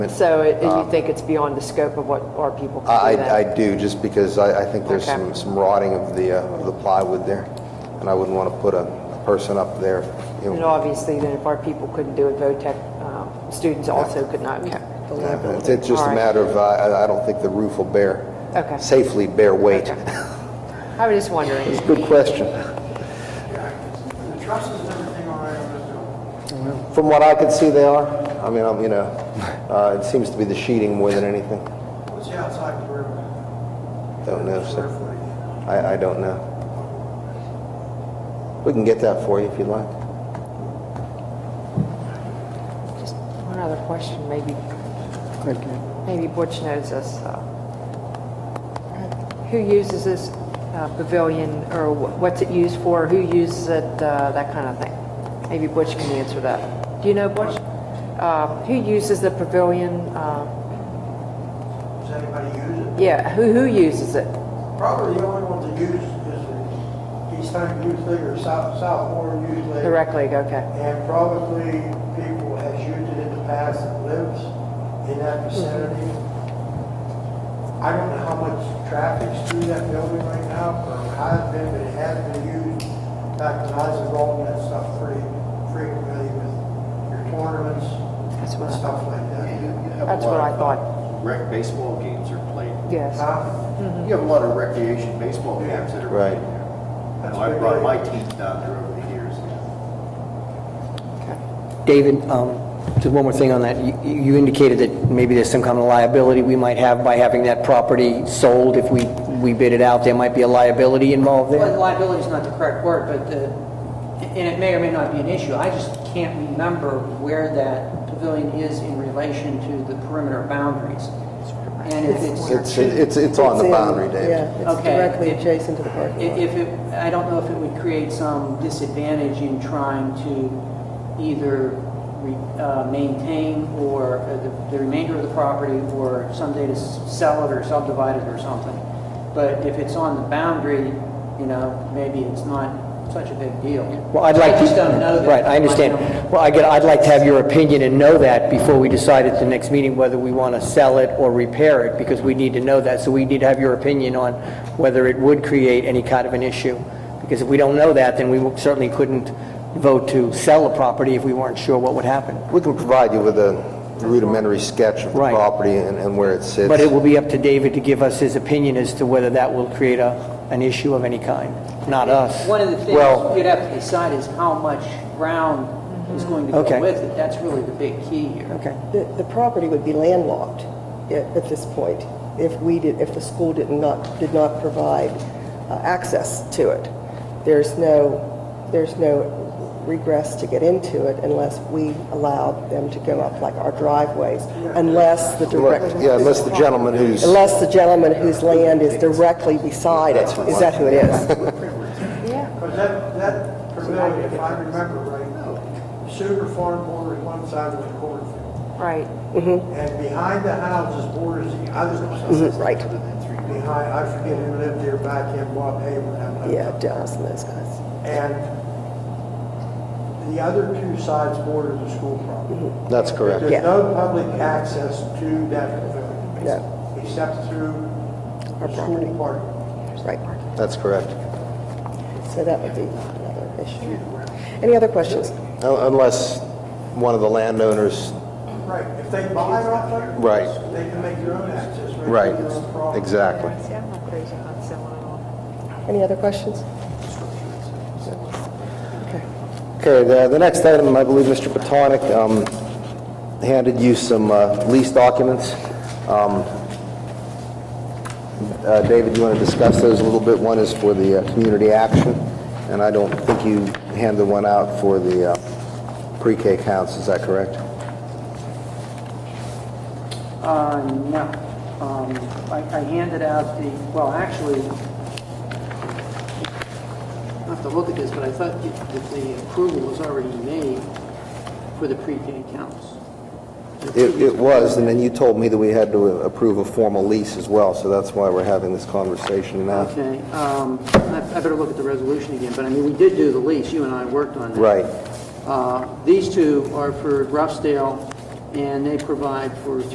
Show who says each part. Speaker 1: So it- you think it's beyond the scope of what our people
Speaker 2: Um, I,
Speaker 1: can do
Speaker 2: I- I
Speaker 1: then?
Speaker 2: do, just because I, I think there's
Speaker 1: Okay.
Speaker 2: some, some rotting of the, uh, of the plywood there, and I wouldn't want to put a a person up there, you
Speaker 1: And
Speaker 2: know.
Speaker 1: obviously, then if our people couldn't do it, VOTEC um, students also could not.
Speaker 2: It's it's just
Speaker 1: All
Speaker 2: a
Speaker 1: right.
Speaker 2: matter of, uh, I, I don't think the roof will bear,
Speaker 1: Okay.
Speaker 2: safely bear weight.
Speaker 1: Okay. I was just wondering.
Speaker 2: It's a good question.
Speaker 3: The trusses and everything all right on this building?
Speaker 2: From what I could see, they are. I mean, I'm, you know, uh, it seems to be the sheeting more than anything.
Speaker 3: What's the outside floor?
Speaker 2: Don't know, sir.
Speaker 3: Square footage.
Speaker 2: I, I don't know. We can get that for you if you'd like.
Speaker 1: Just one other question, maybe, maybe Butch knows this. uh, Who uses this uh, pavilion, or wh- what's it used for, who uses it, uh, that kind of thing? Maybe Butch can answer that. Do you know, Butch? Uh, Who uses the pavilion? uh,
Speaker 3: Does anybody use it?
Speaker 1: Yeah, who, who uses it?
Speaker 3: Probably the only ones that use is the East Huntington Youth League or South, South Warren Youth League.
Speaker 1: Directly, okay.
Speaker 3: And probably people has used it in the past that lives in that vicinity. I don't know how much traffic's through that building right now, or has been, but it has been used back when I was involved in that stuff pretty frequently with your tournaments
Speaker 1: That's what
Speaker 3: and
Speaker 1: I-
Speaker 3: stuff like that.
Speaker 1: That's what I thought,
Speaker 4: Rec baseball games are played.
Speaker 1: yes.
Speaker 3: Huh?
Speaker 1: Mm-hmm.
Speaker 4: You have a lot of recreation baseball games that are
Speaker 2: Right.
Speaker 4: played there.
Speaker 3: That's
Speaker 4: Now, I
Speaker 3: pretty
Speaker 4: brought
Speaker 3: good.
Speaker 4: my team down there over the years.
Speaker 5: David, um, just one more thing on that. You- You indicated that maybe there's some kind of liability we might have by having that property sold. If we we bid it out, there might be a liability involved
Speaker 6: Well,
Speaker 5: there?
Speaker 6: liability is not the correct word, but the, and it may or may not be an issue. I just can't remember where that pavilion is in relation to the perimeter boundaries. And if it's.
Speaker 2: It's, it's, it's on the
Speaker 7: in-
Speaker 2: boundary, Dave.
Speaker 7: Yeah, it's
Speaker 6: Okay.
Speaker 7: directly adjacent to the parking
Speaker 6: If
Speaker 7: lot.
Speaker 6: if it, I don't know if it would create some disadvantage in trying to either re- uh, maintain or uh, the- the remainder of the property or someday to s- sell it or subdivide it or something. But if it's on the boundary, you know, maybe it's not such a big deal.
Speaker 5: Well, I'd like to...
Speaker 6: I just don't know that.
Speaker 5: Right, I understand. Well, I get, I'd like to have your opinion and know that before we decide at the next meeting whether we want to sell it or repair it, because we need to know that. So we need to have your opinion on whether it would create any kind of an issue. Because if we don't know that, then we certainly couldn't vote to sell a property if we weren't sure what would happen.
Speaker 2: We can provide you with a rudimentary sketch of the
Speaker 5: Right.
Speaker 2: property and and where it sits.
Speaker 5: But it will be up to David to give us his opinion as to whether that will create a, an issue of any kind, not us.
Speaker 6: One of the things
Speaker 2: Well-
Speaker 6: you'd have to decide is how much ground is going to
Speaker 5: Okay.
Speaker 6: go with it. That's really the big key here.
Speaker 5: Okay.
Speaker 7: The, the property would be landlocked at, at this point if we did, if the school did not, did not provide uh, access to it. There's no, there's no regress to get into it unless we allowed them to go up like our driveways, unless the direct.
Speaker 2: Yeah, unless the gentleman who's,
Speaker 7: Unless the gentleman whose land is directly beside it. Is that who it is?
Speaker 3: Because that, that pavilion, if I remember right, Sugar Farm borders one side with the cornfield.
Speaker 1: Right.
Speaker 3: And behind the houses borders the other side.
Speaker 7: Mm-hmm. Right.
Speaker 3: Behind, I forget who lived there back in Bob Haven. that lived
Speaker 7: Yeah,
Speaker 3: up there.
Speaker 7: Dallas and those guys.
Speaker 3: And the other two sides border the school property.
Speaker 2: that's correct.
Speaker 3: There's
Speaker 7: Mm-hmm. Yeah.
Speaker 3: no public access to that pavilion.
Speaker 7: No.
Speaker 3: Except through
Speaker 7: Our
Speaker 3: the
Speaker 7: property.
Speaker 3: school park.
Speaker 7: Right.
Speaker 2: That's correct.
Speaker 7: So that would be another issue. Any other questions?
Speaker 2: Un- Unless one of the landowners,
Speaker 3: Right, if they buy it off there.
Speaker 2: Right.
Speaker 3: They can make their own access, right?
Speaker 2: right,
Speaker 3: Their own property.
Speaker 2: exactly.
Speaker 7: Any other questions?
Speaker 2: Okay, the, the next item, I believe Mr. Botonic um, handed you some uh, lease documents. Um, uh, David, you want to discuss those a little bit? One is for the uh, community action, and I don't think you handed one out for the uh, pre-K counts, is that correct?
Speaker 6: Uh, no. Um, I I handed out the, well, actually, I have to look at this, but I thought that that the approval was already made for the pre-K counts.
Speaker 2: It, it was, and then you told me that we had to approve a formal lease as well, so that's why we're having this conversation now.
Speaker 6: Okay, um, I I better look at the resolution again, but I mean, we did do the lease, you and I worked on that.
Speaker 2: Right.
Speaker 6: Uh, These two are for Rousdale, and they provide for